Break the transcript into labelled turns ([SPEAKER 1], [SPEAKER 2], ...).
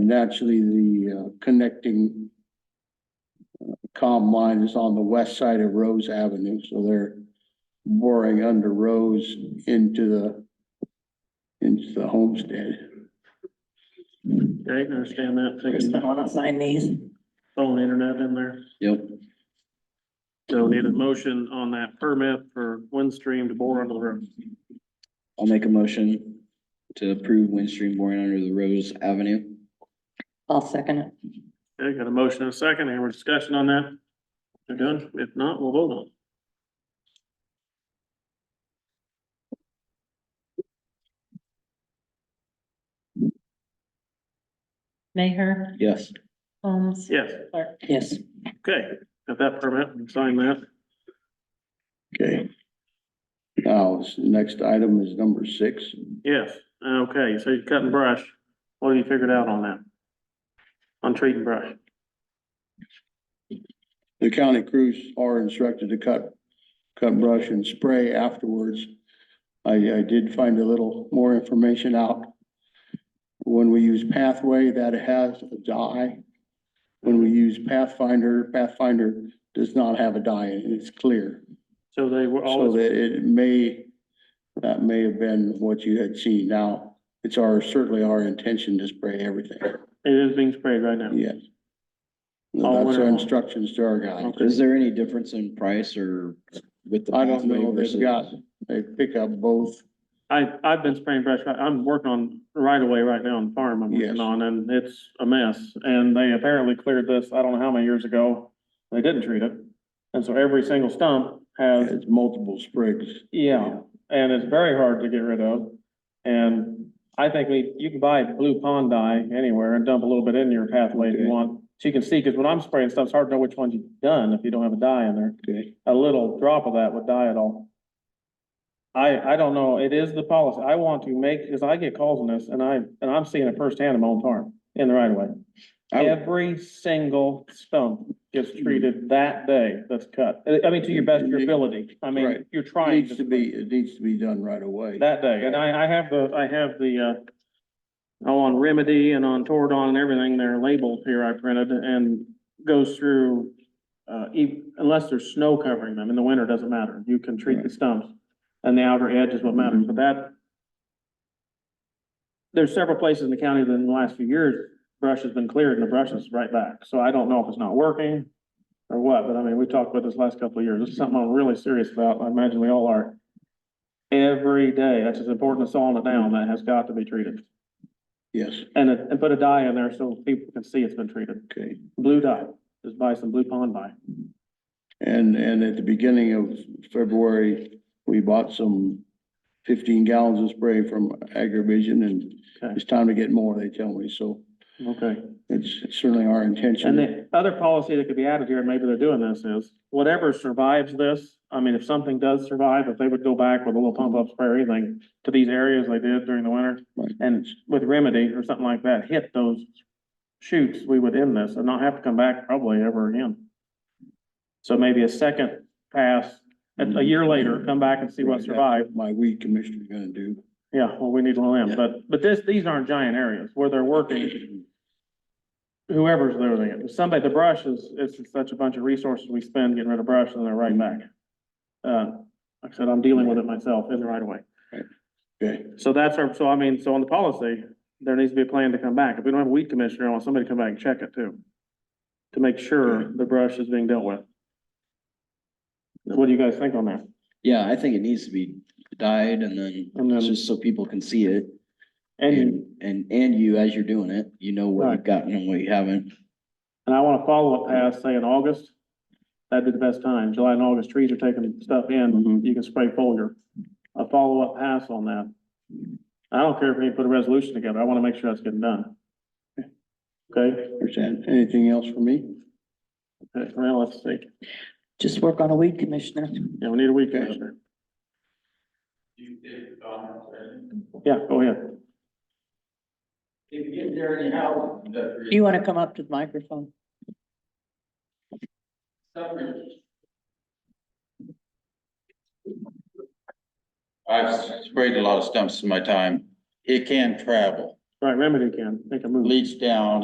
[SPEAKER 1] And actually, the uh, connecting uh, comm line is on the west side of Rose Avenue, so they're boring under Rose into the into the homestead.
[SPEAKER 2] I understand that,
[SPEAKER 3] Kristen,
[SPEAKER 2] taking
[SPEAKER 3] wanna sign these?
[SPEAKER 2] phone internet in there.
[SPEAKER 1] Yep.
[SPEAKER 2] So need a motion on that permit for Windstream to bore under the roof.
[SPEAKER 4] I'll make a motion to approve Windstream boring under the Rose Avenue.
[SPEAKER 3] I'll second it.
[SPEAKER 2] Okay, got a motion and a second, any more discussion on that? They're done, if not, we'll vote on. it.
[SPEAKER 5] Mayor
[SPEAKER 4] Yes.
[SPEAKER 5] Holmes.
[SPEAKER 2] Yes,
[SPEAKER 5] Clark.
[SPEAKER 3] Yes,
[SPEAKER 2] okay, got that permit, and sign that.
[SPEAKER 1] Okay. Now, this next item is number six.
[SPEAKER 2] Yes, okay, so you're cutting brush, what have you figured out on that? On treating brush,
[SPEAKER 1] The county crews are instructed to cut, cut brush and spray afterwards. I, I did find a little more information out. When we use pathway, that has a dye. When we use Pathfinder, Pathfinder does not have a dye in it, it's clear.
[SPEAKER 2] so they were
[SPEAKER 1] So
[SPEAKER 2] always,
[SPEAKER 1] that it may, that may have been what you had seen. Now, it's our, certainly our intention to spray everything,
[SPEAKER 2] it is being sprayed right now.
[SPEAKER 1] yes.
[SPEAKER 2] All
[SPEAKER 1] That's
[SPEAKER 2] winter
[SPEAKER 1] our
[SPEAKER 2] long.
[SPEAKER 1] instructions to our guys.
[SPEAKER 4] Is there any difference in price or with the?
[SPEAKER 1] I don't
[SPEAKER 4] pathway
[SPEAKER 1] know,
[SPEAKER 4] versus-
[SPEAKER 1] they've got, they pick up both,
[SPEAKER 2] I, I've been spraying brush, I- I'm working on right away right now on the farm I'm
[SPEAKER 1] Yes.
[SPEAKER 2] working on, and it's a mess. And they apparently cleared this, I don't know how many years ago, they didn't treat it. And so every single stump has,
[SPEAKER 1] it's multiple sprigs.
[SPEAKER 2] yeah, and it's very hard to get rid of. And I think we, you can buy blue pond dye anywhere and dump a little bit in your pathway if you
[SPEAKER 4] Okay.
[SPEAKER 2] want. So you can see, because when I'm spraying stuff, it's hard to know which ones you've done if you don't have a dye in there
[SPEAKER 4] Okay.
[SPEAKER 2] a little drop of that would die at all. I, I don't know, it is the policy, I want to make, because I get calls on this, and I, and I'm seeing it firsthand in my own farm, in the right of way.
[SPEAKER 4] I would-
[SPEAKER 2] Every single stump gets treated that day that's cut, I- I mean, to your best of your ability, I mean,
[SPEAKER 1] Right.
[SPEAKER 2] you're
[SPEAKER 1] It
[SPEAKER 2] trying.
[SPEAKER 1] Needs to be, it needs to be done right away.
[SPEAKER 2] That day, and I, I have the, I have the, uh, oh, on Remedy and on Toradon and everything, they're labeled here, I printed, and goes through, uh, e- unless there's snow covering them, in the winter, doesn't matter, you can treat the stumps, and the outer edge is what matters, but that, there's several places in the county that in the last few years, brush has been cleared and the brush is right back, so I don't know if it's not working or what, but I mean, we talked about this last couple of years, this is something I'm really serious about, I imagine we all are. Every day, that's as important as sawing it down, that has got to be treated.
[SPEAKER 1] Yes,
[SPEAKER 2] And, it- and put a dye in there so people can see it's been treated.
[SPEAKER 1] okay.
[SPEAKER 2] Blue dye, just buy some blue pond dye.
[SPEAKER 1] And, and at the beginning of February, we bought some fifteen gallons of spray from Agrivision and
[SPEAKER 2] Okay.
[SPEAKER 1] it's time to get more, they tell me, so
[SPEAKER 2] Okay.
[SPEAKER 1] it's certainly our
[SPEAKER 2] And
[SPEAKER 1] intention.
[SPEAKER 2] the other policy that could be added here, and maybe they're doing this, is whatever survives this, I mean, if something does survive, if they would go back with a little pump up spray or anything to these areas they did during the winter,
[SPEAKER 1] Right.
[SPEAKER 2] and with remedy or something like that, hit those shoots, we would end this and not have to come back probably ever again. So maybe a second pass, a, a
[SPEAKER 1] Mm-hmm.
[SPEAKER 2] year later, come back and see what survived.
[SPEAKER 1] My weed commissioner's gonna do.
[SPEAKER 2] Yeah, well, we need to land,
[SPEAKER 1] Yeah.
[SPEAKER 2] but, but this, these aren't giant areas where they're working. Whoever's doing it, somebody, the brush is, it's such a bunch of resources we spend getting rid of brush and they're right back. Uh, like I said, I'm dealing with it myself in the right away.
[SPEAKER 1] Okay,
[SPEAKER 2] So that's our, so I mean, so on the policy, there needs to be a plan to come back. If we don't have a weed commissioner, I want somebody to come back and check it too. To make sure the brush is being dealt with. What do you guys think on that?
[SPEAKER 4] Yeah, I think it needs to be dyed and then
[SPEAKER 2] And then-
[SPEAKER 4] just so people can see it.
[SPEAKER 2] And
[SPEAKER 4] And, and, and you, as you're doing it, you know what
[SPEAKER 2] Right.
[SPEAKER 4] you've gotten and what you haven't.
[SPEAKER 2] And I want to follow up past, say, in August. That'd be the best time. July and August, trees are taking stuff in.
[SPEAKER 1] Mhm.
[SPEAKER 2] You can spray foliar. A follow-up pass on that. I don't care if we put a resolution together. I want to make sure that's getting done. Okay,
[SPEAKER 1] understand. Anything else for me?
[SPEAKER 2] Okay, now let's see.
[SPEAKER 3] just work on a weed commissioner.
[SPEAKER 2] Yeah, we need a weed commissioner. Yeah, go ahead.
[SPEAKER 3] You wanna come up to the microphone?
[SPEAKER 6] I've sprayed a lot of stumps in my time. It can travel,
[SPEAKER 2] Right, remedy can, make a move.
[SPEAKER 6] leach down